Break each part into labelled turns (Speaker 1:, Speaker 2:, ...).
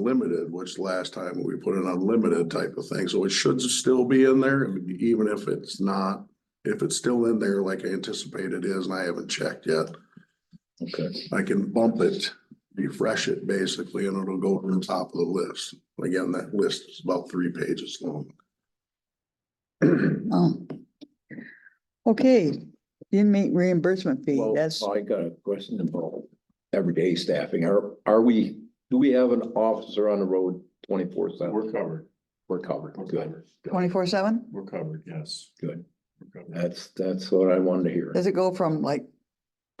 Speaker 1: unlimited, which last time we put an unlimited type of thing, so it should still be in there, even if it's not. If it's still in there like I anticipate it is, and I haven't checked yet,
Speaker 2: Okay,
Speaker 1: I can bump it, refresh it basically, and it'll go to the top of the list. Again, that list is about three pages long.
Speaker 3: Oh. Okay, inmate reimbursement fee,
Speaker 2: well,
Speaker 3: that's,
Speaker 4: uh,
Speaker 2: I got a question about everyday staffing. Are, are we, do we have an officer on the road twenty-four seven?
Speaker 4: We're covered.
Speaker 2: We're covered,
Speaker 4: We're
Speaker 2: good,
Speaker 4: covered.
Speaker 3: twenty-four seven?
Speaker 4: We're covered, yes.
Speaker 2: good.
Speaker 4: We're covered.
Speaker 2: That's, that's what I wanted to hear.
Speaker 3: Does it go from like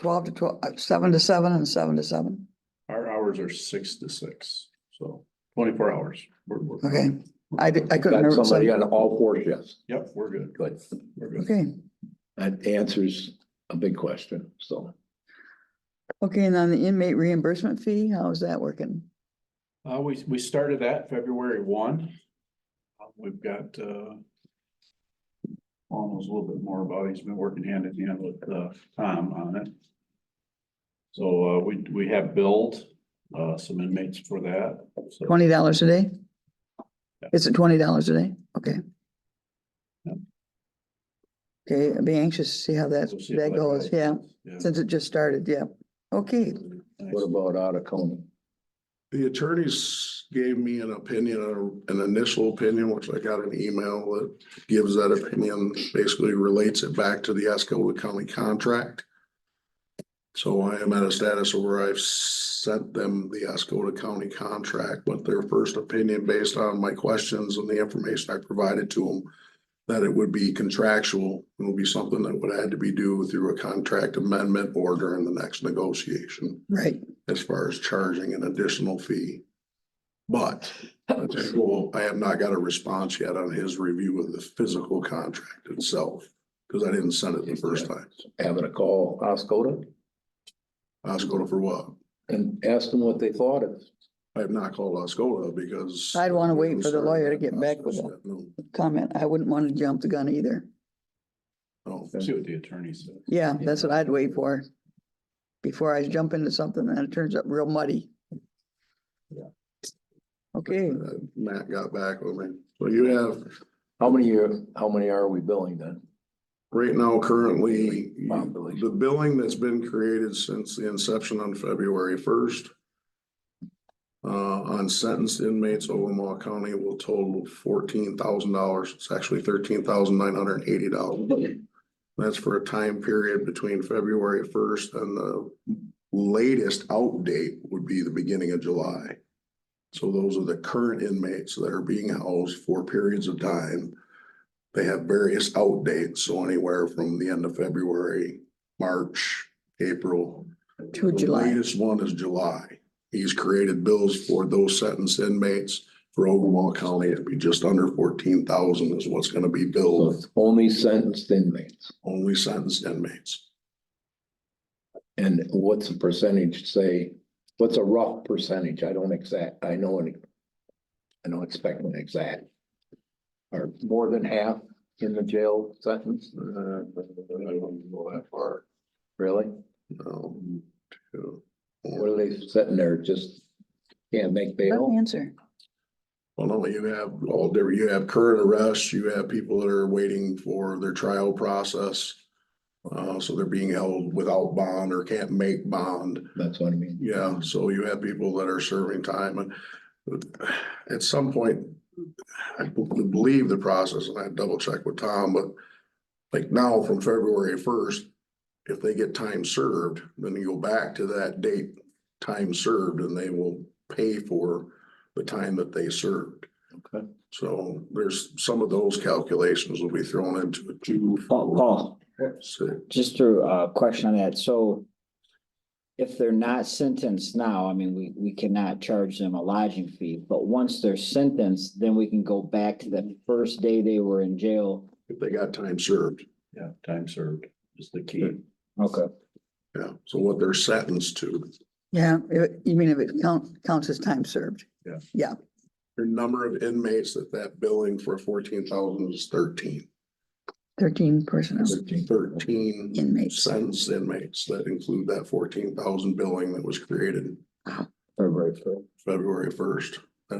Speaker 3: twelve to twelve, uh, seven to seven and seven to seven?
Speaker 4: Our hours are six to six, so twenty-four hours. We're- we're-
Speaker 3: Okay, I, di- I couldn't
Speaker 2: Got
Speaker 3: remember.
Speaker 2: somebody
Speaker 3: some-
Speaker 2: on all four shifts,
Speaker 4: Yep, we're good.
Speaker 2: good.
Speaker 4: We're good.
Speaker 3: Okay,
Speaker 2: That answers a big question, so.
Speaker 3: okay, and on the inmate reimbursement fee, how's that working?
Speaker 4: Uh, we, we started that February one. Uh, We've got, uh, Paul knows a little bit more about it. He's been working hand in hand with, uh, Tom on it. So, uh, we, we have billed, uh, some inmates for that. So
Speaker 3: Twenty dollars a day?
Speaker 4: Yeah.
Speaker 3: Is it twenty dollars a day? Okay.
Speaker 4: Yeah.
Speaker 3: Okay, I'd be anxious to see how that,
Speaker 4: we'll see
Speaker 3: that
Speaker 4: if
Speaker 3: goes, yeah,
Speaker 4: Yeah.
Speaker 3: since it just started, yeah. Okay,
Speaker 2: What about out of county?
Speaker 1: The attorneys gave me an opinion, uh, an initial opinion, which I got an email that gives that opinion, basically relates it back to the Escalon County contract. So I am at a status where I've sent them the Escalon County contract, but their first opinion based on my questions and the information I provided to them. That it would be contractual, it would be something that would had to be due through a contract amendment or during the next negotiation
Speaker 3: right,
Speaker 1: as far as charging an additional fee. But well, I have not got a response yet on his review of the physical contract itself, because I didn't send it the first time.
Speaker 2: Having a call Oscoda
Speaker 1: Oscoda for what?
Speaker 2: and ask them what they thought of.
Speaker 1: I have not called Oscoda because.
Speaker 3: I'd wanna wait for the lawyer to get back with it.
Speaker 1: No,
Speaker 3: comment, I wouldn't want to jump the gun either.
Speaker 1: no.
Speaker 4: See what the attorney said.
Speaker 3: Yeah, that's what I'd wait for. Before I jump into something and it turns up real muddy.
Speaker 4: Yeah.
Speaker 3: Okay,
Speaker 1: Uh, Matt got back with me. So you have,
Speaker 2: How many, are- how many are we billing then?
Speaker 1: right now currently,
Speaker 2: Population.
Speaker 1: the billing that's been created since the inception on February first uh, on sentenced inmates, Omaha County will total fourteen thousand dollars. It's actually thirteen thousand nine hundred and eighty dollars. That's for a time period between February first and the latest out date would be the beginning of July. So those are the current inmates that are being housed for periods of time. They have various out dates, so anywhere from the end of February, March, April.
Speaker 3: to
Speaker 1: The
Speaker 3: July,
Speaker 1: Latest one is July. He's created bills for those sentenced inmates for Ogumah County. It'd be just under fourteen thousand is what's gonna be
Speaker 2: So
Speaker 1: billed,
Speaker 2: it's only sentenced inmates.
Speaker 1: only sentenced inmates.
Speaker 2: And what's the percentage, say, what's a rough percentage? I don't exact, I know any. I don't expect an exact. Or more than half in the jail sentence,
Speaker 1: Uh, I wouldn't go that far.
Speaker 2: really?
Speaker 1: No. Um, two,
Speaker 2: What
Speaker 1: four.
Speaker 2: are they sitting there, just can't make
Speaker 3: Let me
Speaker 2: bail?
Speaker 3: answer.
Speaker 1: Well, no, you have all different, you have current arrests, you have people that are waiting for their trial process. Uh, so they're being held without bond or can't make bond.
Speaker 2: That's what I mean.
Speaker 1: Yeah, so you have people that are serving time and at some point, I believe the process, and I double check with Tom, but like now from February first, if they get time served, then you go back to that date, time served, and they will pay for the time that they served.
Speaker 2: Okay.
Speaker 1: So there's some of those calculations will be thrown into it. too.
Speaker 5: Paul, Paul,
Speaker 1: So
Speaker 5: just a uh, question on that. So if they're not sentenced now, I mean, we, we cannot charge them a lodging fee, but once they're sentenced, then we can go back to the first day they were in jail.
Speaker 1: if they got time served,
Speaker 4: Yeah, time served is the key.
Speaker 5: Okay.
Speaker 1: yeah, so what they're sentenced to.
Speaker 3: Yeah, if- you mean if it counts, counts as time served?
Speaker 1: Your number of inmates that that billing for fourteen thousand is thirteen.
Speaker 3: Thirteen personnel
Speaker 1: Thirteen
Speaker 3: inmates.
Speaker 1: sentenced inmates that include that fourteen thousand billing that was created.
Speaker 5: February first.
Speaker 1: February first.